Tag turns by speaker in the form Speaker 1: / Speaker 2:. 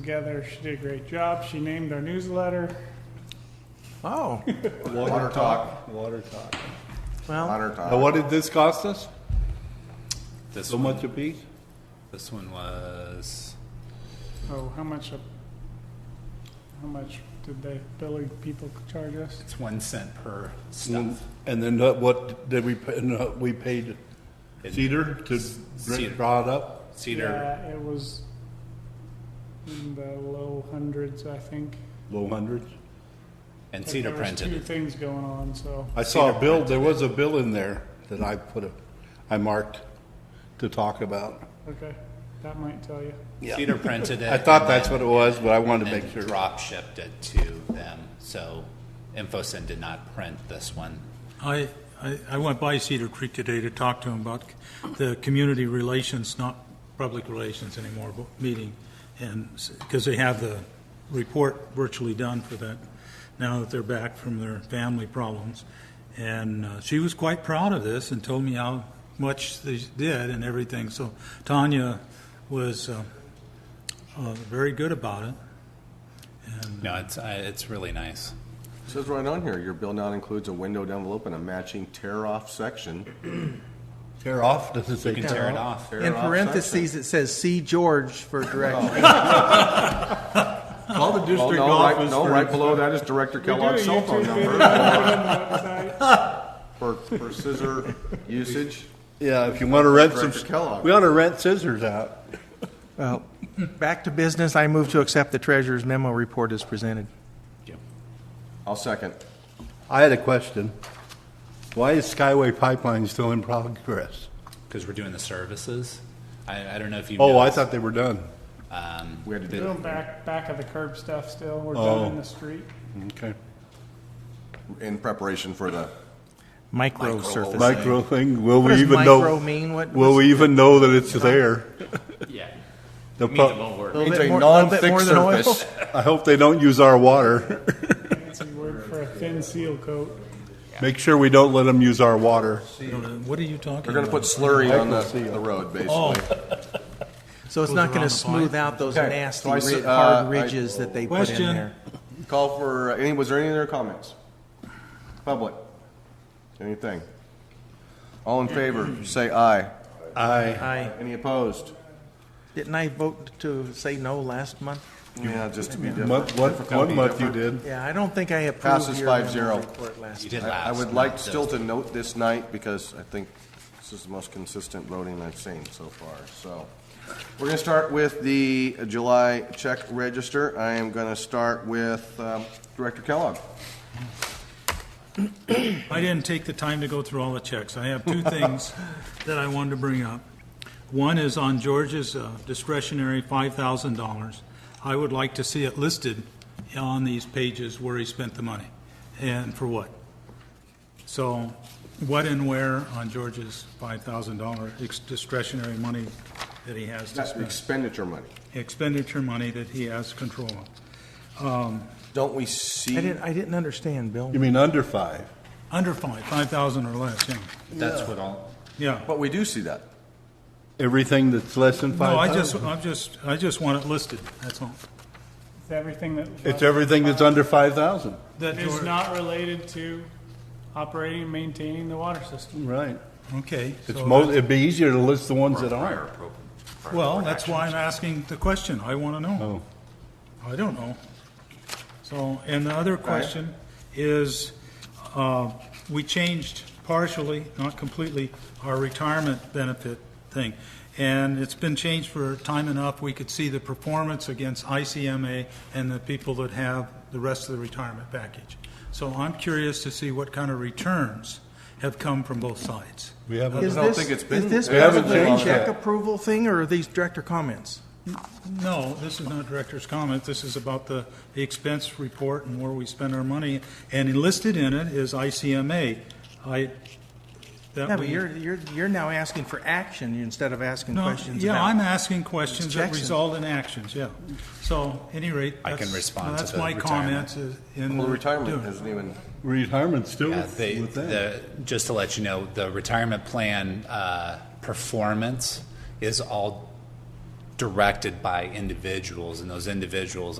Speaker 1: together. She did a great job. She named our newsletter.
Speaker 2: Oh,
Speaker 3: Water talk. Water talk.
Speaker 2: well,
Speaker 3: Water talk. Now, what did this cost us?
Speaker 4: This
Speaker 3: So
Speaker 4: one,
Speaker 3: much a piece?
Speaker 4: this one was
Speaker 1: Oh, how much, a- how much did they, Billy people charge us?
Speaker 4: it's one cent per
Speaker 3: And
Speaker 4: stuff.
Speaker 3: then uh, what did we, pay- and, uh, we paid
Speaker 4: It-
Speaker 3: Cedar to
Speaker 4: Cedar.
Speaker 3: bring- draw it up?
Speaker 4: Cedar,
Speaker 1: Yeah, Uh, it was in the low hundreds, I think.
Speaker 3: Low hundreds?
Speaker 4: and
Speaker 1: But
Speaker 4: Cedar
Speaker 1: there was Two
Speaker 4: printed it.
Speaker 1: things going on, so.
Speaker 3: I saw a bill, there was a bill in there that I put, a- I marked to talk about.
Speaker 1: Okay, that might tell you.
Speaker 4: Cedar printed it.
Speaker 3: I thought
Speaker 4: and
Speaker 3: that's
Speaker 4: then-
Speaker 3: what it was, but I wanted to
Speaker 4: and
Speaker 3: make sure.
Speaker 4: drop shipped it to them. So InfoSend did not print this one.
Speaker 5: I, I, I went by Cedar Creek today to talk to him about the community relations, not public relations anymore, but meeting. And, because they have the report virtually done for that, now that they're back from their family problems. And uh, she was quite proud of this and told me how much they did and everything. So Tanya was, uh, uh, very good about it.
Speaker 4: No, it's uh, it's really nice.
Speaker 6: It Says right on here, your bill now includes a windowed envelope and a matching tear-off section.
Speaker 3: Tear off, does it say
Speaker 4: You can tear it off.
Speaker 2: in
Speaker 6: Tear-off
Speaker 2: parentheses, it says, see George for direction.
Speaker 3: Call the
Speaker 6: section. Oh,
Speaker 3: district
Speaker 6: no, right,
Speaker 3: office
Speaker 6: no, right below that is Director
Speaker 1: We do a
Speaker 6: Kellogg's cell phone
Speaker 1: YouTube video
Speaker 6: number
Speaker 1: on the website.
Speaker 6: for, for scissor usage.
Speaker 3: Yeah, if you want to rent some,
Speaker 6: Director Kellogg.
Speaker 3: we ought to rent scissors out.
Speaker 2: Well,
Speaker 6: Oh.
Speaker 2: back to business, I move to accept the treasurer's memo report as presented.
Speaker 6: I'll second.
Speaker 3: I had a question. Why is Skyway Pipeline still in progress?
Speaker 4: Because we're doing the services. I, I don't know if you.
Speaker 3: Oh, I
Speaker 4: noticed,
Speaker 3: thought they were done.
Speaker 4: Um,
Speaker 6: We had to do
Speaker 1: Doing back, back of the curb stuff still. We're done in
Speaker 3: Oh.
Speaker 1: the street.
Speaker 3: Okay.
Speaker 6: it in preparation for the,
Speaker 2: Micro surface.
Speaker 3: Micro thing, will
Speaker 2: What
Speaker 3: we
Speaker 2: does
Speaker 3: even know?
Speaker 2: micro mean? What-
Speaker 3: Will we even know that it's there?
Speaker 7: Yeah,
Speaker 3: The
Speaker 7: means it
Speaker 3: pu-
Speaker 7: won't work.
Speaker 2: A little
Speaker 6: it's
Speaker 2: bit
Speaker 6: a
Speaker 2: more- little bit
Speaker 6: non-thick
Speaker 2: more than oil.
Speaker 6: surface.
Speaker 3: I hope they don't use our water.
Speaker 1: Fancy word for a thin seal coat.
Speaker 3: Make sure we don't let them use our water.
Speaker 5: What are you talking about?
Speaker 6: They're gonna put slurry on the,
Speaker 3: Microseal.
Speaker 6: the road,
Speaker 5: Oh,
Speaker 6: basically.
Speaker 2: So it's
Speaker 5: Goes
Speaker 2: not
Speaker 5: around
Speaker 2: gonna
Speaker 5: the
Speaker 2: smooth out those
Speaker 6: Okay,
Speaker 2: nasty,
Speaker 6: so I see-
Speaker 2: ri-
Speaker 6: uh,
Speaker 2: hard
Speaker 6: I-
Speaker 2: ridges that they put in
Speaker 5: Question.
Speaker 2: there.
Speaker 6: Call for, uh, any, was there any other comments? Public? Anything? All in favor, say aye.
Speaker 3: I,
Speaker 2: I,
Speaker 6: Any opposed?
Speaker 2: didn't I vote to say no last month?
Speaker 6: Yeah, just to be
Speaker 3: month,
Speaker 6: different.
Speaker 3: one,
Speaker 6: Difficult to
Speaker 3: one
Speaker 6: be
Speaker 3: month you
Speaker 6: different.
Speaker 3: did.
Speaker 2: Yeah, I don't think I approved
Speaker 6: Passes
Speaker 2: your memo
Speaker 6: 5-0.
Speaker 2: report last.
Speaker 4: you did last.
Speaker 6: I I would like
Speaker 4: not
Speaker 6: still
Speaker 4: this.
Speaker 6: to note this night, because I think this is the most consistent voting I've seen so far, so. We're gonna start with the July check register. I am gonna start with um, Director Kellogg.
Speaker 5: I didn't take the time to go through all the checks. I have two things that I wanted to bring up. One is on George's uh, discretionary $5,000. I would like to see it listed on these pages where he spent the money and for what. So what and where on George's $5,000 ex- discretionary money that he has to
Speaker 6: That's
Speaker 5: spend,
Speaker 6: expenditure money.
Speaker 5: expenditure money that he has control of.
Speaker 6: Don't we
Speaker 2: I
Speaker 6: see,
Speaker 2: didn't, I didn't understand, Bill.
Speaker 3: You mean under five?
Speaker 5: Under five, 5,000 or less, yeah.
Speaker 4: That's what I'll.
Speaker 5: Yeah.
Speaker 6: but we do see that.
Speaker 3: Everything that's less than
Speaker 5: No, I
Speaker 3: five
Speaker 5: just,
Speaker 3: thousand?
Speaker 5: I'm just, I just want it listed, that's all.
Speaker 1: It's everything that.
Speaker 3: It's everything that's under five thousand.
Speaker 5: That
Speaker 1: Is
Speaker 5: George-
Speaker 1: not related to operating and maintaining the water system.
Speaker 3: Right.
Speaker 5: Okay.
Speaker 3: It's
Speaker 5: so
Speaker 3: mo,
Speaker 5: that's-
Speaker 3: it'd be easier to list the ones that aren't.
Speaker 5: Well, that's why I'm asking the question. I want to know. I don't know. So, and the other question is, uh, we changed partially, not completely, our retirement benefit thing. And it's been changed for time enough, we could see the performance against ICMA and the people that have the rest of the retirement package. So I'm curious to see what kind of returns have come from both sides.
Speaker 3: We haven't.
Speaker 2: Is
Speaker 6: don't
Speaker 2: this,
Speaker 6: think it's
Speaker 2: is
Speaker 6: been-
Speaker 2: this
Speaker 6: They
Speaker 3: haven't
Speaker 2: possibly a
Speaker 3: changed
Speaker 2: check
Speaker 3: that.
Speaker 2: approval thing, or are these director comments?
Speaker 5: No, this is not director's comment. This is about the, the expense report and where we spend our money. And enlisted in it is ICMA. I,
Speaker 2: Yeah,
Speaker 5: that
Speaker 2: but
Speaker 5: we.
Speaker 2: you're, you're, you're now asking for action instead of asking
Speaker 5: No,
Speaker 2: questions
Speaker 5: Yeah, I'm
Speaker 2: about.
Speaker 5: asking questions that
Speaker 2: Jackson.
Speaker 5: result in actions, yeah. So, any rate.
Speaker 4: I can
Speaker 5: that's-
Speaker 4: respond to
Speaker 5: That's
Speaker 4: the
Speaker 5: my
Speaker 4: retirement.
Speaker 5: comments is in.
Speaker 6: Well,
Speaker 5: the
Speaker 6: retirement
Speaker 5: doing.
Speaker 6: isn't even,
Speaker 3: Retirement's still
Speaker 4: Yeah,
Speaker 3: with
Speaker 4: they,
Speaker 3: with that.
Speaker 4: the, just to let you know, the retirement plan uh, performance is all directed by individuals, and those individuals,